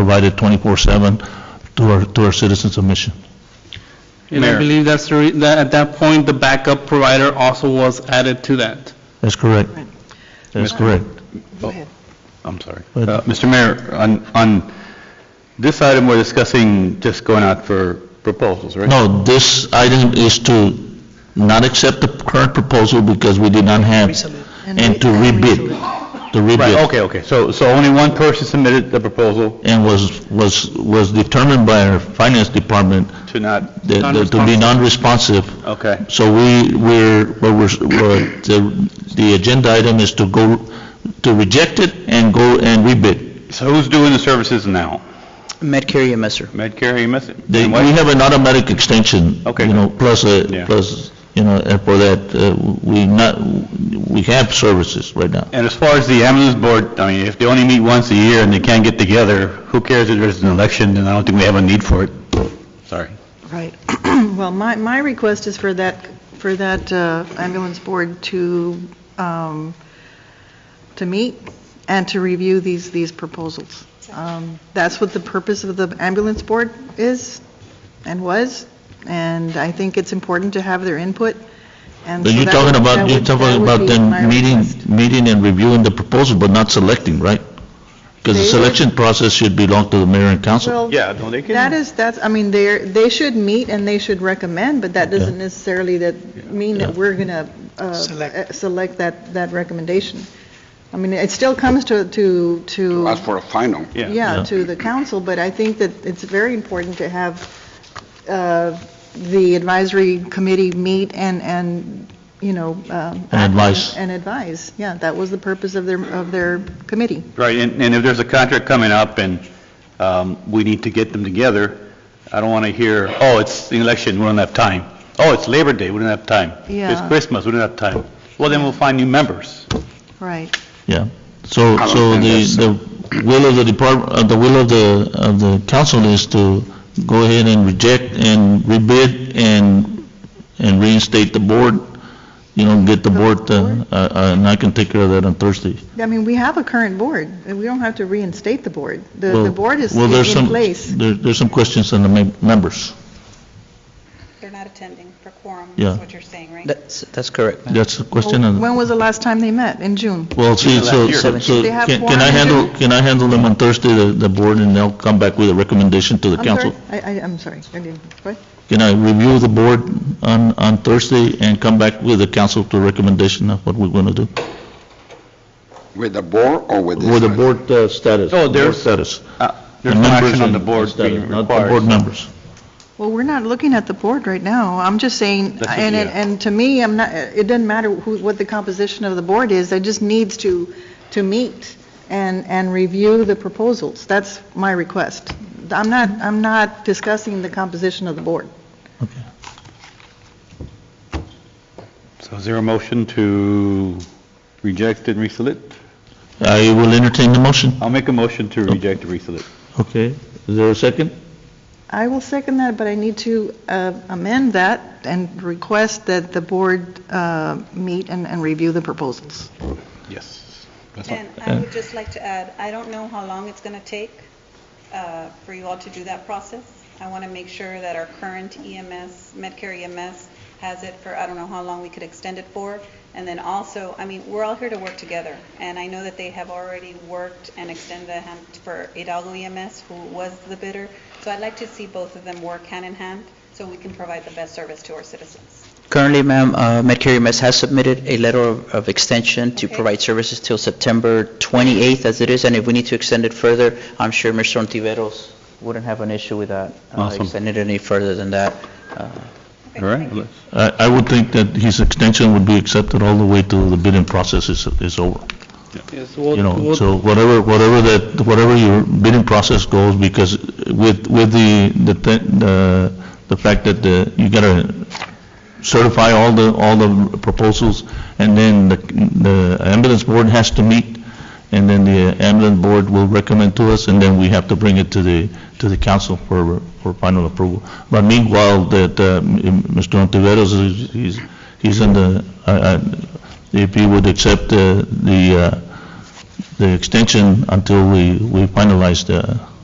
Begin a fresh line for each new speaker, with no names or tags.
provided 24/7 to our, to our citizens of Mission.
And I
Mayor.
believe that's the, re- that at that point, the backup provider also was added to that.
That's correct. That's correct.
I'm sorry.
But-
Uh, Mr. Mayor, on, on this item, we're discussing just going out for proposals, right?
No, this item is to not accept the current proposal because we did not have, and to rebid, to
Right,
rebid.
okay, okay. So, so only one person submitted the proposal
And was, was, was determined by our finance department
to not,
that- that to be non-responsive
okay.
So we, we're, what we're, what the, the agenda item is to go, to reject it and go and rebid.
So who's doing the services now?
Medicare EMS, sir.
Medicare, EMS?
They- We have an automatic extension.
Okay.
You know, plus, a
Yeah.
plus, you know, and for that, uh, we not, we have services right now.
And as far as the ambulance board, I mean, if they only meet once a year and they can't get together, who cares if there's an election? And I don't think we have a need for it. Sorry.
Right. Well, my, my request is for that, for that uh, ambulance board to, um, to meet and to review these, these proposals. Um, That's what the purpose of the ambulance board is and was, and I think it's important to have their input. And
But
so
you're
that
talking
would-
about,
that
you're
would- that
talking
would
about
be my
then meeting,
request.
meeting and reviewing the proposal, but not selecting, right? Because the
They-
selection process should belong to the mayor and council.
Well,
Yeah, no, they
that is, that's, I mean, they're, they should meet and they should recommend, but that doesn't necessarily that, mean that we're going to select that, that recommendation. I mean, it still comes to, to, to,
As for a final.
yeah,
Yeah.
to the council, but I think that it's very important to have uh, the advisory committee meet and, and, you know. um,
And advise.
And advise, yeah, that was the purpose of their, of their committee.
Right, and, and if there's a contract coming up and um, we need to get them together, I don't want to hear, oh, it's the election, we don't have time. Oh, it's Labor Day, we don't have time. It's
Yeah.
Christmas, we don't have time. Well, then we'll find new members.
Right.
Yeah, so,
don't
so
think
the,
that's-
the will of the department, uh, the will of the, of the council is to go ahead and reject and rebid and, and reinstate the board, you know, get the board, uh, uh, uh, and I can take care of that on Thursday.
I mean, we have a current board, and we don't have to reinstate the board. The, the
Well-
board is
well,
in
there's
in
some-
place.
There, there's some questions on the mem- members,
They're not attending for quorum,
Yeah.
is what you're saying, right?
That's, that's correct. ma'am.
that's the question, and,
When was the last time they met? In June?
well, see, so, so, so
They have
can
four
can I
on the
handle, can I handle them on Thursday, the, the board, and they'll come back with a recommendation to the
I'm sorry,
council?
I, I, I'm sorry, I didn't, what?
Can I review the board on, on Thursday and come back with the council to recommendation of what we're going to do?
With the board or with this?
With the
one?
board uh, status.
Oh, there's-
Board Status.
Uh, There's no
Members
action on
and
the board being
status, Not the board
required.
members.
Well, we're not looking at the board right now. I'm just saying,
That's what-
and, and-
yeah.
and to me, I'm not, it doesn't matter who, what the composition of the board is, it just needs to, to meet and, and review the proposals. That's my request. I'm not, I'm not discussing the composition of the board.
So is there a motion to reject and resolute?
I will entertain the motion.
I'll make a motion to reject and resolute.
Okay. Is there a second?
I will second that, but I need to uh, amend that and request that the board uh, meet and and review the proposals.
Yes.
And I would just like to add, I don't know how long it's going to take uh, for you all to do that process. I want to make sure that our current EMS, Medicare EMS, has it for, I don't know how long we could extend it for. And then also, I mean, we're all here to work together. And I know that they have already worked and extended a hand for Hidalgo EMS, who was the bidder. So I'd like to see both of them work hand in hand so we can provide the best service to our citizens.
Currently, ma'am, uh, Medicare EMS has submitted a letter of of extension to
Okay.
provide services till September 28th as it is, and if we need to extend it further, I'm sure Mr. Ontiveros wouldn't have an issue with that, uh,
Awesome.
extending it any further than that. Uh,
All right, let's-
I, I would think that his extension would be accepted all the way to the bidding process is, is over.
Yes,
You know, so whatever, whatever that, whatever your bidding process goes, because with, with the, the, te- the- the fact that the, you gotta certify all the, all the proposals, and then the, the ambulance board has to meet, and then the ambulance board will recommend to us, and then we have to bring it to the, to the council for, for final approval. But meanwhile, that, uh, Mr. Ontiveros, is- he's, he's in the, uh, I- I- if he would accept uh, the, uh, the extension until we, we finalize the,